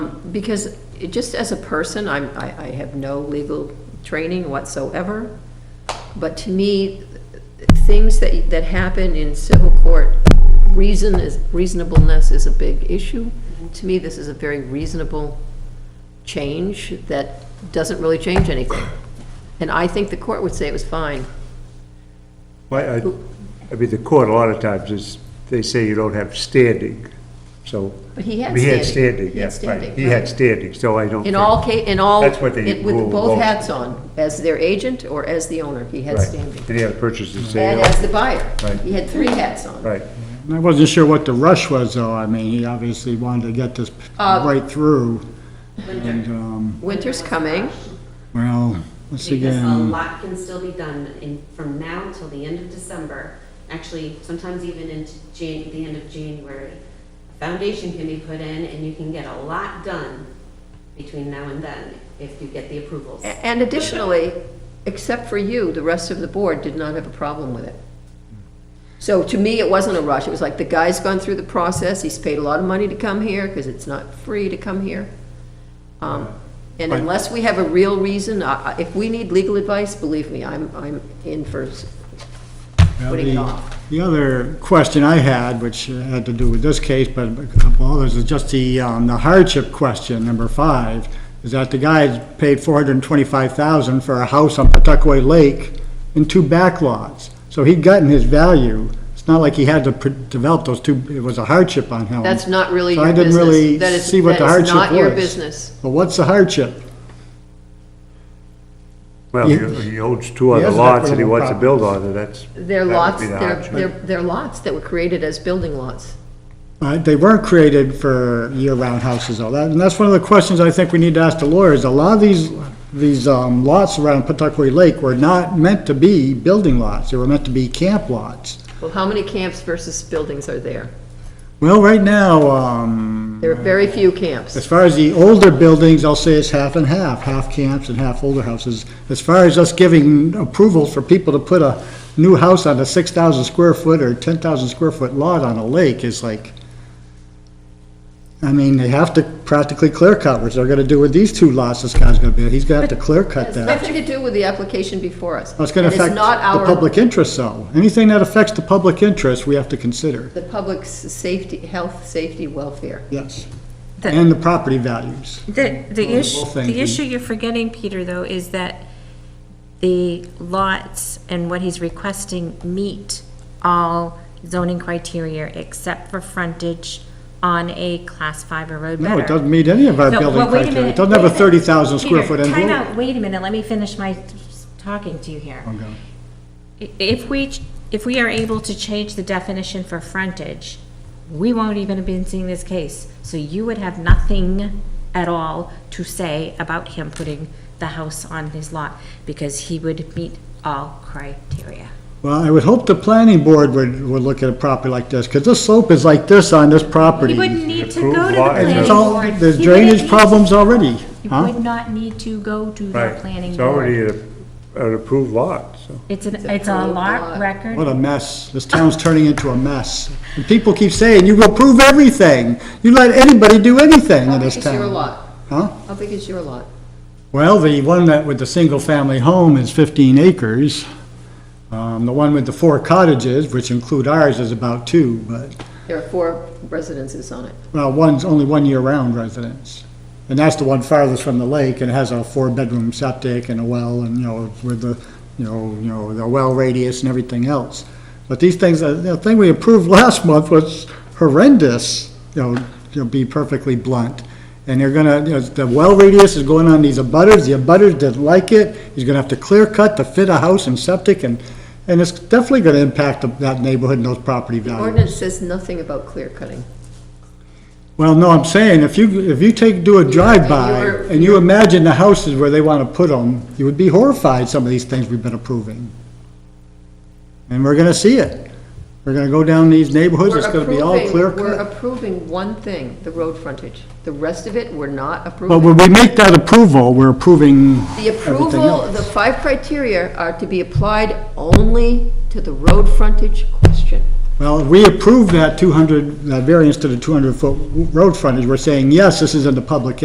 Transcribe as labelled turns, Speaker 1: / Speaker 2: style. Speaker 1: because it- just as a person, I'm, I, I have no legal training whatsoever, but to me, things that, that happen in civil court, reason is, reasonableness is a big issue. To me, this is a very reasonable change that doesn't really change anything. And I think the court would say it was fine.
Speaker 2: Why, I, I mean, the court, a lot of times, is, they say you don't have standing, so.
Speaker 1: But he had
Speaker 2: I mean,
Speaker 1: standing. He had
Speaker 2: yeah, right.
Speaker 1: standing,
Speaker 2: He had
Speaker 1: right.
Speaker 2: standing, so I don't.
Speaker 1: In
Speaker 2: think-
Speaker 1: all ca, in all.
Speaker 2: That's what they
Speaker 1: it- With
Speaker 2: rule
Speaker 1: both
Speaker 2: most.
Speaker 1: hats on, as their agent or as the owner, he had
Speaker 2: Right.
Speaker 1: standing.
Speaker 2: Did he have purchase and
Speaker 1: And
Speaker 2: sale?
Speaker 1: as the buyer,
Speaker 2: Right.
Speaker 1: he had three hats on.
Speaker 2: Right,
Speaker 3: I wasn't sure what the rush was, though. I mean, he obviously wanted to get this
Speaker 1: Uh,
Speaker 3: right through. And, um,
Speaker 1: Winter's coming,
Speaker 3: well, once
Speaker 4: Because um, a
Speaker 3: again,
Speaker 4: lot can still be done in, from now till the end of December, actually, sometimes even into Jan, the end of January. A Foundation can be put in and you can get a lot done between now and then if you get the approvals.
Speaker 1: A- and additionally, except for you, the rest of the board did not have a problem with it. So to me, it wasn't a rush, it was like, the guy's gone through the process, he's paid a lot of money to come here, because it's not free to come here. Um, And
Speaker 3: Right.
Speaker 1: unless we have a real reason, I- I- if we need legal advice, believe me, I'm, I'm in for s-
Speaker 3: Now,
Speaker 1: putting it
Speaker 3: the-
Speaker 1: off.
Speaker 3: The other question I had, which uh, had to do with this case, but a couple others, is just the, um, the hardship question, number five, is that the guy paid four hundred and twenty-five thousand for a house on Pawtucket Lake and two back lots. So he'd gotten his value. It's not like he had to pr- develop those two, it was a hardship on him.
Speaker 1: That's not really
Speaker 3: So
Speaker 1: your
Speaker 3: I
Speaker 1: business.
Speaker 3: didn't really
Speaker 1: That is-
Speaker 3: see what the hardship
Speaker 1: That is not your
Speaker 3: was.
Speaker 1: business.
Speaker 3: But what's the hardship?
Speaker 2: well,
Speaker 3: You-
Speaker 2: he he owns two other
Speaker 3: has an
Speaker 2: lots that he
Speaker 3: equitable
Speaker 2: wants to build on, and that's.
Speaker 1: They're
Speaker 2: that would
Speaker 1: lots,
Speaker 2: be the
Speaker 1: they're,
Speaker 2: hardship.
Speaker 1: they're they're lots that were created as building lots.
Speaker 3: Uh, They weren't created for year-round houses, though. That- And that's one of the questions I think we need to ask the lawyers. A lot of these, these um, lots around Pawtucket Lake were not meant to be building lots. They were meant to be camp lots.
Speaker 1: Well, how many camps versus buildings are there?
Speaker 3: Well, right now, um,
Speaker 1: There are very
Speaker 2: Uh,
Speaker 1: few
Speaker 3: as
Speaker 1: camps.
Speaker 3: far as the older buildings, I'll say it's half and half, half camps and half older houses. As far as us giving approval for people to put a new house on a 6,000 square foot or 10,000 square foot lot on a lake is like, I mean, they have to practically clear cut, which they're gonna do with these two lots this guy's gonna build. He's gonna have to clear cut
Speaker 1: It has
Speaker 3: that. uh,
Speaker 1: nothing to do with the application before us.
Speaker 3: It's gonna
Speaker 1: And
Speaker 3: affect
Speaker 1: not
Speaker 3: the
Speaker 1: our-
Speaker 3: public interest, though. Anything that affects the public interest, we have to consider,
Speaker 1: The public's safety, health, safety, welfare.
Speaker 3: yes.
Speaker 5: The-
Speaker 3: And the property values.
Speaker 5: The, the
Speaker 3: Well,
Speaker 5: issue,
Speaker 3: thank
Speaker 5: the
Speaker 3: you.
Speaker 5: issue you're forgetting, Peter, though, is that the lots and what he's requesting meet all zoning criteria except for frontage on a class five or road
Speaker 3: No, it
Speaker 5: better.
Speaker 3: doesn't meet any of our
Speaker 5: No,
Speaker 3: building
Speaker 5: well, wait a
Speaker 3: criteria. It
Speaker 5: minute,
Speaker 3: doesn't have a
Speaker 5: wait a minute.
Speaker 3: 30,000 square
Speaker 5: Peter,
Speaker 3: foot
Speaker 5: time
Speaker 3: envelope.
Speaker 5: out, wait a minute, let me finish my talking to you here.
Speaker 3: Okay.
Speaker 5: I- If we, ch- if we are able to change the definition for frontage, we won't even have been seeing this case. So you would have nothing at all to say about him putting the house on his lot because he would meet all criteria.
Speaker 3: Well, I would hope the planning board would, would look at a property like this, because this slope is like this on this property.
Speaker 5: He wouldn't need to go to
Speaker 2: Approved
Speaker 5: the
Speaker 2: lot.
Speaker 3: And
Speaker 5: planning
Speaker 3: it's all,
Speaker 5: board.
Speaker 3: there's
Speaker 5: He wouldn't
Speaker 3: drainage
Speaker 5: need-
Speaker 3: problems already,
Speaker 5: He
Speaker 3: huh?
Speaker 5: would not need to go to the
Speaker 2: Right,
Speaker 5: planning
Speaker 2: it's
Speaker 5: board.
Speaker 2: already an an approved lot, so.
Speaker 5: It's an,
Speaker 1: a
Speaker 5: it's a
Speaker 1: approved
Speaker 5: lot
Speaker 1: lot.
Speaker 5: record.
Speaker 3: What a mess. This town's turning into a mess. And people keep saying, you approve everything. You let anybody do anything
Speaker 1: How
Speaker 3: in
Speaker 1: big
Speaker 3: this
Speaker 1: is your
Speaker 3: town.
Speaker 1: lot?
Speaker 3: Huh?
Speaker 1: How big is your lot?
Speaker 3: Well, the one that with the single-family home is 15 acres. Um, The one with the four cottages, which include ours, is about two, but
Speaker 1: There are four residences on it.
Speaker 3: Well, one's only one year-round residence. And that's the one farthest from the lake, and it has a four-bedroom septic and a well, and, you know, with the, you know, you know, the well radius and everything else. But these things, uh, the thing we approved last month was horrendous, you know, to be perfectly blunt. And they're gonna, you know, the well radius is going on these abutters, the abutters didn't like it, he's gonna have to clear cut to fit a house and septic, and, and it's definitely gonna impact that neighborhood and those property values.
Speaker 1: Ordinance says nothing about clear cutting.
Speaker 3: Well, no, I'm saying, if you, if you take, do a drive-by,
Speaker 1: you're-
Speaker 3: and you imagine the houses where they want to put them, you would be horrified, some of these things we've been approving. And we're gonna see it. We're gonna go down these neighborhoods, it's
Speaker 1: We're
Speaker 3: gonna be all
Speaker 1: approving-
Speaker 3: clear
Speaker 1: We're
Speaker 3: cut.
Speaker 1: approving one thing, the road frontage. The rest of it, we're not
Speaker 3: But
Speaker 1: approving.
Speaker 3: when we make that approval, we're approving
Speaker 1: The
Speaker 3: everything
Speaker 1: approval, the
Speaker 3: else.
Speaker 1: five criteria are to be applied only to the road frontage question.
Speaker 3: Well, if we approve that two hundred, that variance to the two hundred foot road frontage, we're saying, yes, this is in the public